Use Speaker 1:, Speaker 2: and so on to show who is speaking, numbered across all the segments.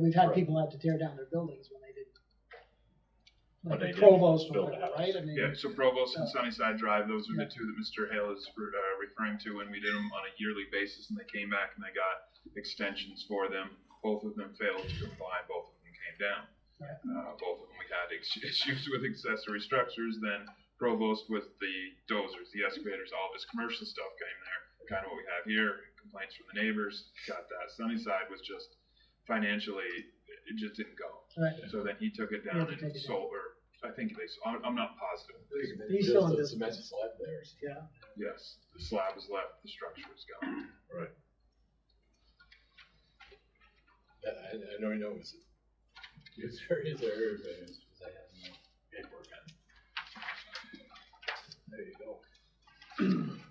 Speaker 1: we've had
Speaker 2: Right.
Speaker 1: people have to tear down their buildings when they didn't.
Speaker 3: But they
Speaker 1: Like
Speaker 3: didn't
Speaker 1: Provost or
Speaker 3: build a
Speaker 1: whatever,
Speaker 3: house.
Speaker 1: right? I mean,
Speaker 4: Yeah, so Provost
Speaker 1: Oh.
Speaker 4: and Sunnyside Drive, those are the two that Mr. Hale is re- uh, referring to when we did them on a yearly basis and they came back and they got extensions for them. Both of them failed to comply, both of them came down. Uh, both of them, we had ex- issues with accessory structures, then Provost with the dozers, the excavators, all this commercial stuff came there. Kind of what we have here, complaints from the neighbors, got that. Sunnyside was just financially, it- it just didn't go.
Speaker 1: right.
Speaker 4: So then he took it
Speaker 1: He had
Speaker 4: down
Speaker 1: to
Speaker 4: and
Speaker 1: take it down.
Speaker 4: sold, or I think they, sold- I'm, I'm not positive.
Speaker 1: He's still in
Speaker 2: Just a
Speaker 1: this-
Speaker 2: Cement slab there.
Speaker 4: Yes, the slab is left, the structure is gone.
Speaker 2: Yeah, I, I know, I know, it's, it's very, it's very, but it's, because I have no paperwork on it. There you go.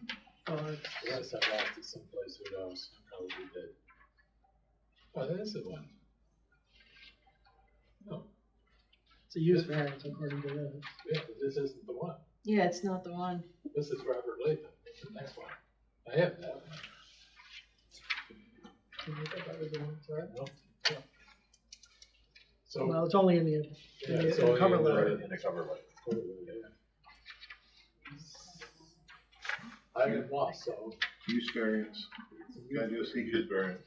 Speaker 1: Or
Speaker 2: Unless I lost it someplace, who knows, I probably did. Oh, that is the one. No,
Speaker 1: it's a use variance according to this.
Speaker 2: yeah, but this isn't the one,
Speaker 5: Yeah, it's not the one.
Speaker 2: this is Robert Latham, it's the next one, I have that one.
Speaker 5: Can you think that was the one for it?
Speaker 2: No, no. So,
Speaker 1: Well, it's only in the,
Speaker 2: yeah,
Speaker 1: in
Speaker 2: it's
Speaker 1: the
Speaker 2: all
Speaker 1: cover
Speaker 2: you-
Speaker 1: letter.
Speaker 2: in the cover letter. I got lost, so.
Speaker 6: Use variance, you gotta do a secret variance.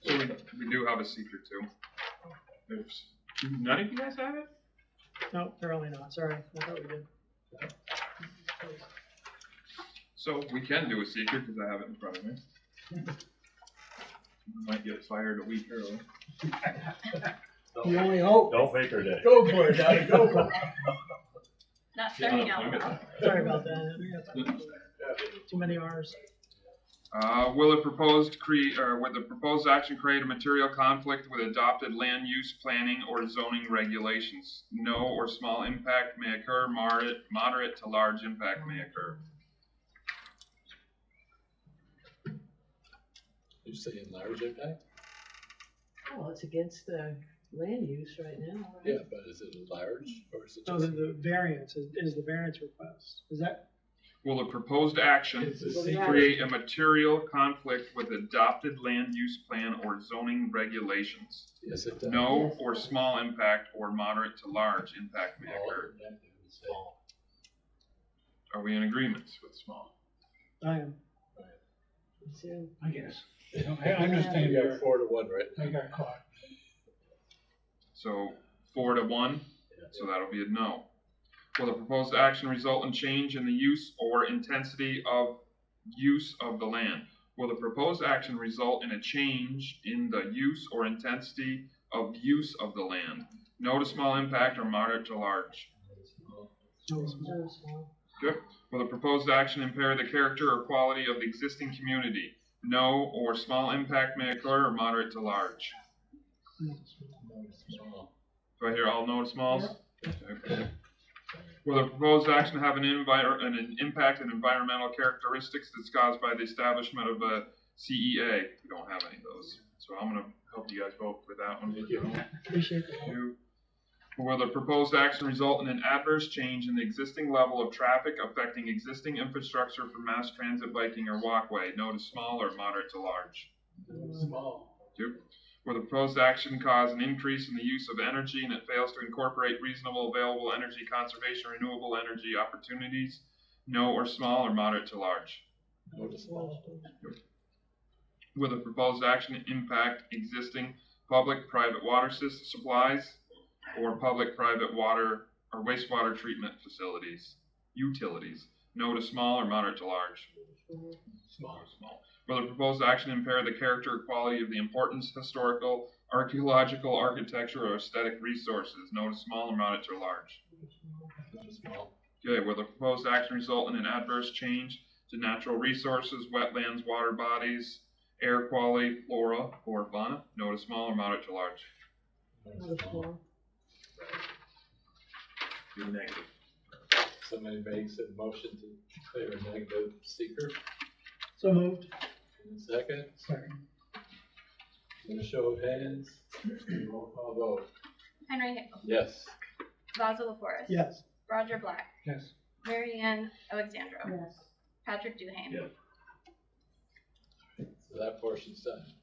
Speaker 4: So we, we do have a secret too. There's, none of you guys have it?
Speaker 1: No, apparently not, sorry, I thought we did.
Speaker 4: So we can do a secret because I have it in front of me. Might get fired a week early.
Speaker 1: You only hope,
Speaker 3: Don't make her day.
Speaker 2: Go for it, Donnie, go for it.
Speaker 7: Not
Speaker 4: Get
Speaker 7: starting out.
Speaker 4: unemployment.
Speaker 1: sorry about that, we got too many Rs.
Speaker 4: Uh, will a proposed create, or would the proposed action create a material conflict with adopted land use planning or zoning regulations? No or small impact may occur, moderate, moderate to large impact may occur.
Speaker 2: You're saying large impact?
Speaker 5: Well, it's against the land use right now. right?
Speaker 2: Yeah, but is it large or is it
Speaker 1: So the,
Speaker 2: just?
Speaker 1: the variance is, is the variance request, is that,
Speaker 4: Will a proposed action
Speaker 2: It's a
Speaker 5: Well,
Speaker 2: secret.
Speaker 4: create a material conflict with adopted land use plan or zoning regulations?
Speaker 2: Yes, it does.
Speaker 4: No or small impact or moderate to large impact may
Speaker 2: All
Speaker 4: occur.
Speaker 2: impact, I would say.
Speaker 4: Are we in agreement with small?
Speaker 1: I am,
Speaker 5: So,
Speaker 8: I guess. I I understand
Speaker 2: You got
Speaker 8: your,
Speaker 2: four to one, right?
Speaker 8: I got caught.
Speaker 4: So four to one? So that'll be a no. Will the proposed action result in change in the use or intensity of use of the land? Will the proposed action result in a change in the use or intensity of use of the land? No to small impact or moderate to large.
Speaker 1: no small.
Speaker 5: no small.
Speaker 4: Will the proposed action impair the character or quality of the existing community? No or small impact may occur or moderate to large.
Speaker 2: Small.
Speaker 4: Do I hear all no to smalls? Okay. Will the proposed action have an envir, an- an impact on environmental characteristics that's caused by the establishment of a CEA? We don't have any of those, so I'm gonna help you guys vote for that one.
Speaker 2: Thank you.
Speaker 1: appreciate the help.
Speaker 4: Two. Will the proposed action result in an adverse change in the existing level of traffic affecting existing infrastructure for mass transit biking or walkway? No to small or moderate to large?
Speaker 2: Small.
Speaker 4: Two, where the proposed action cause an increase in the use of energy and it fails to incorporate reasonable available energy conservation, renewable energy opportunities, no or small or moderate to large.
Speaker 2: No to small.
Speaker 4: Will the proposed action impact existing public-private water sys- supplies or public-private water or wastewater treatment facilities, utilities, no to small or moderate to large?
Speaker 2: Small.
Speaker 4: small. Will the proposed action impair the character or quality of the importance, historical, archaeological, architecture, or aesthetic resources, no to small or moderate to large?
Speaker 2: No to small.
Speaker 4: Okay, will the proposed action result in an adverse change to natural resources, wetlands, water bodies, air quality, flora, or fauna, no to small or moderate to large?
Speaker 2: No
Speaker 5: No
Speaker 2: to small.
Speaker 5: small.
Speaker 4: You're negative.
Speaker 2: Somebody makes a motion to declare a negative secret.
Speaker 1: So moved,
Speaker 2: In a second,
Speaker 1: sorry.
Speaker 2: in a show of hands, roll call vote.
Speaker 7: Henry Hickle,
Speaker 2: Yes.
Speaker 7: Basil LaForest.
Speaker 1: Yes,
Speaker 7: Roger Black,
Speaker 8: Yes.
Speaker 7: Mary Ann Alexandro,
Speaker 5: Yes.
Speaker 7: Patrick Duhane.
Speaker 3: Yeah.
Speaker 2: So that portion's done.